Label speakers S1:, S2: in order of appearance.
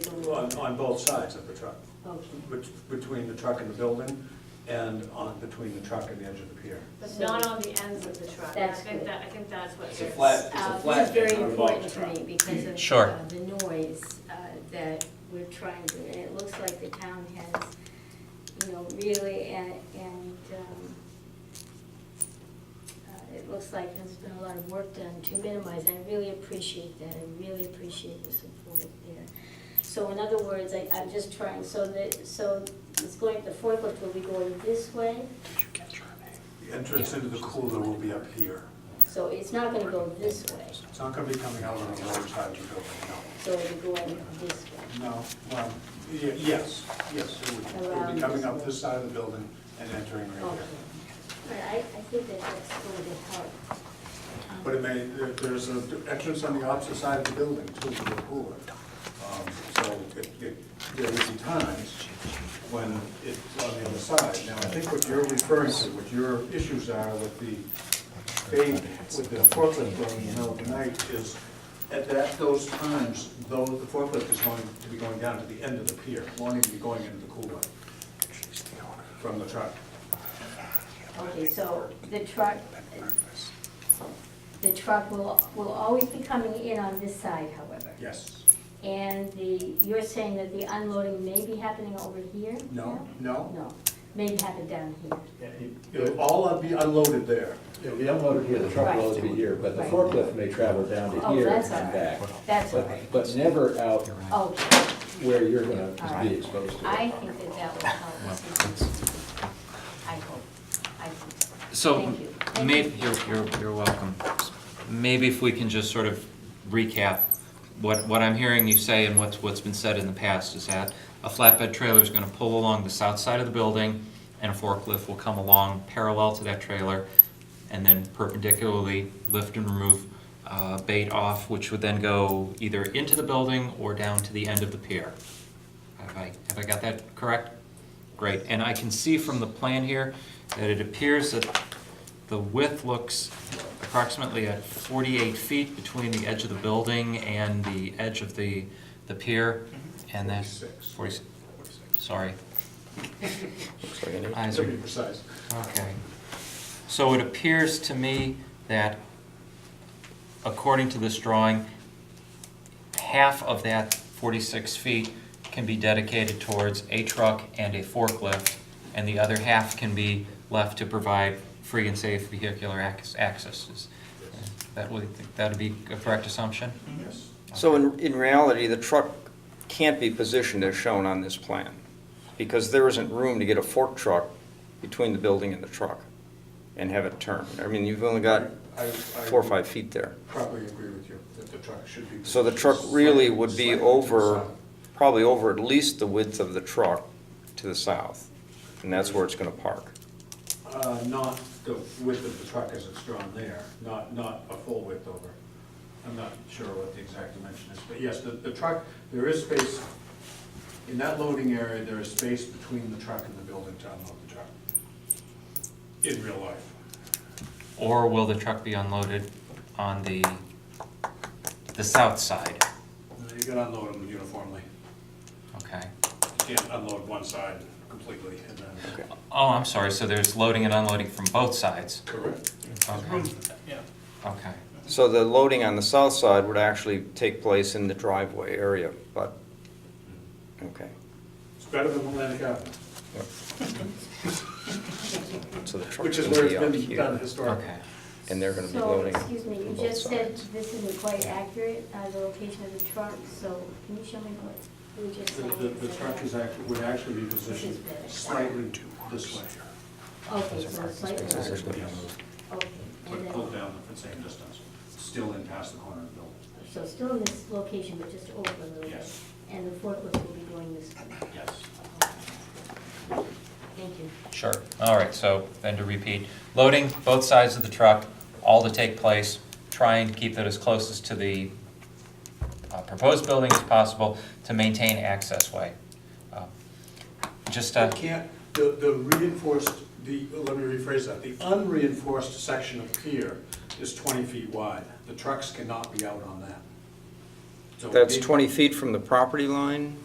S1: on, on both sides of the truck,
S2: Okay.
S1: bet- between the truck and the building, and on, between the truck and the edge of the pier.
S3: But not on the ends of the truck.
S2: That's
S3: I think
S2: good.
S3: that, I think that's what.
S4: It's a
S3: gets-
S4: flat- it's a
S2: Uh, This
S4: flat
S2: is very
S4: and revolved
S2: important to
S4: truck.
S2: me because of
S5: Sure.
S2: uh, the noise uh, that we're trying to, and it looks like the town has, you know, really, and, and um, uh, it looks like there's been a lot of work done to minimize. I really appreciate that. I really appreciate the support there. So in other words, I, I'm just trying, so that, so it's going, the forklift will be going this way?
S1: The entrance into the cooler will be up here.
S2: So it's not gonna go this way,
S1: It's not gonna be coming out on the lower side of the building,
S2: so it'll be going this way.
S1: no. No, well, ye- yes, yes, it would, it would be coming up this side of the building and entering right
S2: Okay.
S1: here.
S2: But I, I think that that's going to help.
S1: But it may, there- there's an entrance on the opposite side of the building too, to the pool. Um, So it, it, there would be times when it's on the other side. Now, I think what you're referring to, what your issues are with the bay, with the forklift going in the middle of the night is at that, those times, though the forklift is going to be going down to the end of the pier, wanting to be going into the cooler from the truck.
S2: Um, Okay, so the truck, the truck will, will always be coming in on this side, however.
S1: Yes.
S2: And the, you're saying that the unloading may be happening over here?
S1: No, no?
S2: No, may happen down here.
S1: It'll all be unloaded there.
S6: It'll be unloaded here, the truck will always be here, but the
S2: Right.
S6: forklift may travel down to
S2: Oh,
S6: here and
S2: that's all
S6: back.
S2: right. That's all
S6: But-
S2: right.
S6: But never out
S2: Okay,
S6: where you're gonna
S2: All right.
S6: be exposed to
S2: I
S6: it.
S2: think that that will help. I hope, I hope. so.
S5: So,
S2: Thank you. Thank
S5: maybe,
S2: you.
S5: you're, you're, you're welcome. Maybe if we can just sort of recap what, what I'm hearing you say and what's, what's been said in the past is that a flatbed trailer is gonna pull along the south side of the building and a forklift will come along parallel to that trailer and then perpendicularly lift and remove, uh, bait off, which would then go either into the building or down to the end of the pier. Have I, have I got that correct? Great, and I can see from the plan here that it appears that the width looks approximately at 48 feet between the edge of the building and the edge of the, the pier, and that's...
S1: 46.
S5: 46. Sorry. Eyes
S1: To
S5: are-
S1: be precise.
S5: Okay. So it appears to me that, according to this drawing, half of that 46 feet can be dedicated towards a truck and a forklift, and the other half can be left to provide free and safe vehicular ac- access. Is- That would, that'd be a correct assumption?
S1: Yes.
S7: So in, in reality, the truck can't be positioned as shown on this plan, because there isn't room to get a fork truck between the building and the truck and have it turn. I mean, you've only got
S1: I- I-
S7: four or five feet there.
S1: Probably agree with you that the truck should be.
S7: So the truck really would be
S1: slightly
S7: over,
S1: slightly
S7: probably over at least the width of the truck to the south, and that's where it's gonna park.
S1: to the side. Uh, not the width of the truck as it's drawn there, not, not a full width over. I'm not sure what the exact dimension is, but yes, the, the truck, there is space, in that loading area, there is space between the truck and the building to unload the truck. In real life.
S5: Or will the truck be unloaded on the, the south side?
S1: You can unload them uniformly.
S5: Okay.
S1: You can't unload one side completely and then.
S5: Oh, I'm sorry, so there's loading and unloading from both sides?
S1: Correct.
S5: Okay, okay.
S7: So the loading on the south side would actually take place in the driveway area, but, okay.
S1: It's better than Atlantic Avenue.
S7: So the truck
S1: Which is
S7: can
S1: where
S7: be out
S1: it's been done
S7: here,
S1: historically.
S5: Okay.
S7: and they're gonna be
S2: So,
S7: loading.
S2: excuse me, you
S7: from both
S2: just said
S7: sides.
S2: this isn't quite accurate, uh, the location of the truck, so can you show me what you were just
S1: The,
S2: saying?
S1: the- the truck is act, would actually be positioned slightly this way,
S2: Okay, so it's slightly,
S7: This is
S2: okay,
S7: what-
S2: and
S1: but pulled
S2: then,
S1: down the same distance, still in past the corner of the building.
S2: so still in this location, but just over a little bit,
S1: Yes.
S2: and the forklift will be going this way.
S1: Yes.
S2: Thank you.
S5: Sure. All right, so then to repeat, loading both sides of the truck, all to take place, trying to keep it as close as to the uh, proposed building as possible to maintain access way. Uh, Just, uh,
S1: It can't, the, the reinforced, the, let me rephrase that, the unreinforced section of pier is twenty feet wide. The trucks cannot be out on that. So
S7: That's
S1: it-
S7: 20 feet from the property line?